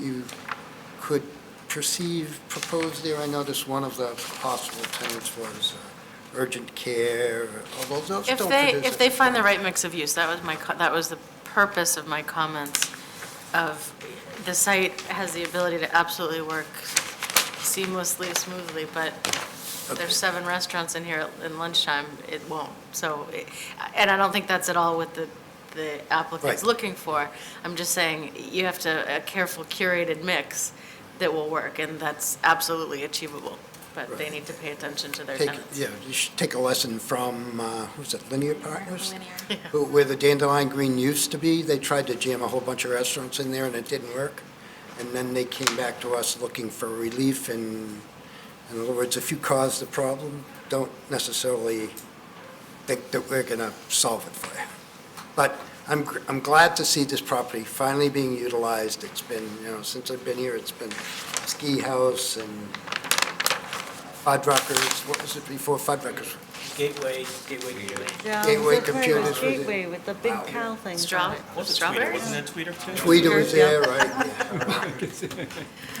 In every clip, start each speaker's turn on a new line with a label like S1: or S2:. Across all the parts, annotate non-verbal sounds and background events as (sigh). S1: you could perceive proposed there? I noticed one of the possible tenants was uh, urgent care, although those
S2: If
S1: don't
S2: they,
S1: produce
S2: if they find the
S1: anything.
S2: right mix of use, that was my, co- that was the purpose of my comments of, the site has the ability to absolutely work seamlessly, smoothly, but
S1: Okay.
S2: there's seven restaurants in here in lunchtime, it won't. So, it- and I don't think that's at all what the, the
S1: Right.
S2: applicant's looking for. I'm just saying, you have to, a careful curated mix that will work, and that's absolutely achievable. But they
S1: Right.
S2: need to pay attention to their
S1: Take,
S2: tenants.
S1: yeah, you should take a lesson from, uh, who's it, Linear Partners?
S2: Yeah.
S1: Who- Where the Dandelion Green used to be, they tried to jam a whole bunch of restaurants in there and it didn't work. And then they came back to us looking for relief and, in other words, if you cause the problem, don't necessarily think that we're going to solve it for you. But I'm, gr- I'm glad to see this property finally being utilized. It's been, you know, since I've been here, it's been ski house and Fuddruckers, what was it before Fuddruckers?
S3: Gateway, Gateway, Gateway.
S4: Yeah,
S1: Gateway
S4: the Prairie
S1: computers within-
S4: Gateway with the big cow thing.
S2: Straw- Strawberries?
S3: Wasn't that Tweeter too?
S1: Tweeter was
S4: Yeah.
S1: there, right?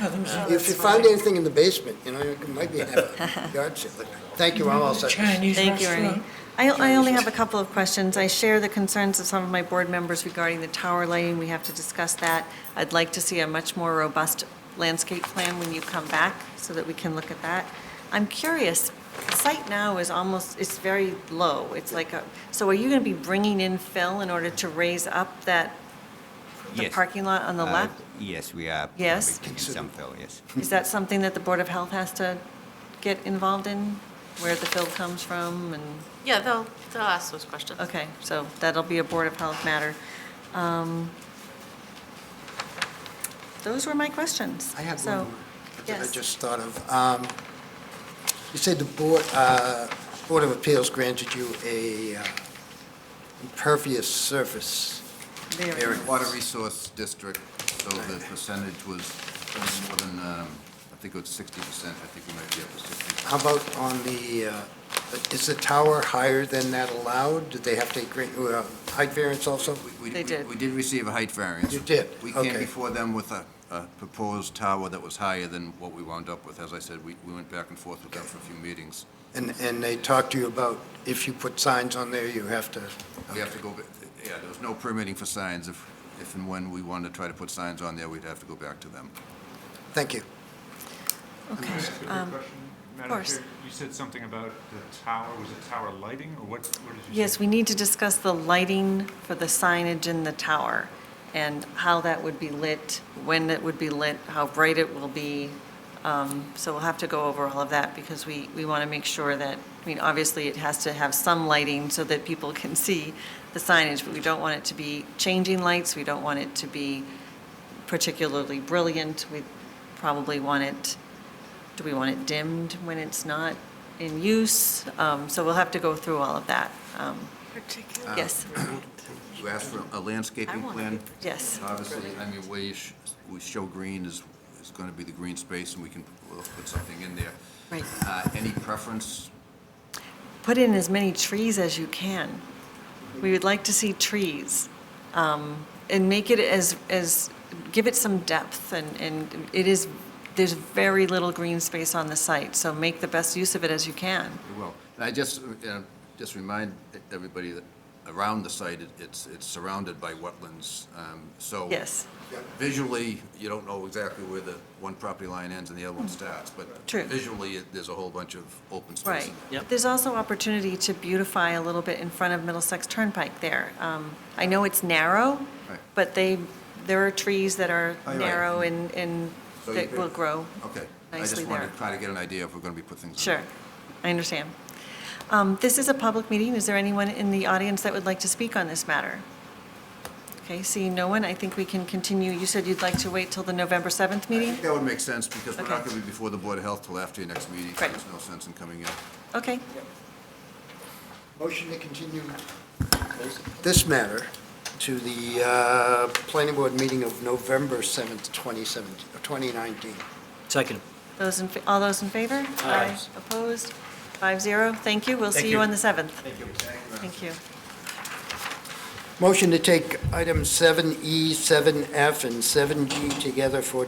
S1: yeah. If you find anything in the basement, you know, you might be
S4: (laughs)
S1: having a yard sale. Thank you, I'm all set.
S5: Chinese
S4: Thank you, Ernie.
S5: restaurant.
S4: I, I only have a couple of questions. I share the concerns of some of my board members regarding the tower lighting. We have to discuss that. I'd like to see a much more robust landscape plan when you come back so that we can look at that. I'm curious, the site now is almost, it's very low. It's like a, so are you going to be bringing in fill in order to raise up that, the
S6: Yes.
S4: parking lot on the
S6: Uh,
S4: left?
S6: Yes, we are.
S4: Yes.
S6: probably taking some fill, yes.
S4: Is that something that the Board of Health has to get involved in, where the fill comes from and,
S2: Yeah, they'll, they'll ask those questions.
S4: okay, so that'll be a Board of Health matter. Um, Those were my questions.
S1: I have
S4: So-
S1: one more that I
S4: yes.
S1: just thought of. Um, You said the Board, uh, Board of Appeals granted you a uh, impervious surface
S4: There.
S1: area.
S7: Water Resource District, so the percentage was more than, um, I think it was sixty percent, I think we might be up to sixty.
S1: How about on the, uh, is the tower higher than that allowed? Did they have to grant you a height variance also?
S7: We- we-
S4: They did.
S7: We did receive a height variance.
S1: You did?
S7: We
S1: Okay.
S7: came before them with a, a proposed tower that was higher than what we wound up with. As I said, we, we went back and forth with them for a few meetings.
S1: And, and they talked to you about if you put signs on there, you have to,
S7: We have to go, ba- yeah, there was no permitting for signs. If, if and when we wanted to try to put signs on there, we'd have to go back to them.
S1: thank you.
S4: Okay.
S8: Just a quick
S4: um,
S8: question, Madam
S4: course.
S8: Chair. You said something about the tower, was it tower lighting, or what, what did you say?
S4: Yes, we need to discuss the lighting for the signage in the tower and how that would be lit, when it would be lit, how bright it will be. Um, So we'll have to go over all of that because we, we want to make sure that, I mean, obviously it has to have some lighting so that people (laughs) can see the signage, but we don't want it to be changing lights. We don't want it to be particularly brilliant. We probably want it do we want it dimmed when it's not in use? Um, So we'll have to go through all of that. Um, Yes,
S7: You asked for a landscaping plan?
S4: yes.
S7: Obviously, I mean, where you sh- we show green is, is going to be the green space, and we can, we'll put something in there.
S4: Right.
S7: Uh, Any preference?
S4: Put in as many trees as you can. We would like to see trees. um, And make it as, as, give it some depth and, and it is, there's very little green space on the site, so make the best use of it as you can.
S7: Well, I just, uh, just remind everybody that around the site, it- it's, it's surrounded by wetlands, um, so.
S4: Yes,
S7: Visually, you don't know exactly where the one property line ends and the other one starts, but
S4: True.
S7: visually, it- there's a whole bunch of open space.
S4: right.
S7: in there.
S3: Yep.
S4: There's also opportunity to beautify a little bit in front of Middlesex Turnpike there. Um, I know it's narrow,
S7: Right.
S4: But they, there are trees that are
S7: Oh, you're right.
S4: narrow and, and
S7: So you
S4: that will
S7: could- Oh.
S4: grow.
S7: Okay. I
S4: Nicely
S7: just wanted
S4: there.
S7: to try to get an idea if we're going to be putting things in.
S4: Sure, I understand. Um, This is a public meeting. Is there anyone in the audience that would like to speak on this matter? Okay, seeing no one, I think we can continue. You said you'd like to wait till the November 7th
S7: I
S4: meeting?
S7: think that would make sense, because we're not
S4: Okay.
S7: going to be before the Board of Health till after your next meeting, so
S4: Right.
S7: there's no sense in coming in.
S4: Okay,
S1: Motion to continue this matter to the uh, planning board meeting of November 7th, 2017, 2019.
S3: Second.
S4: those in, fa- all those in favor? Aye. Opposed? Five zero, thank you. We'll
S3: Thank
S4: see you
S3: you.
S4: on the 7th.
S3: Thank you.
S4: Thank you.
S1: E, Motion to take item 7E, 7F, and 7G together for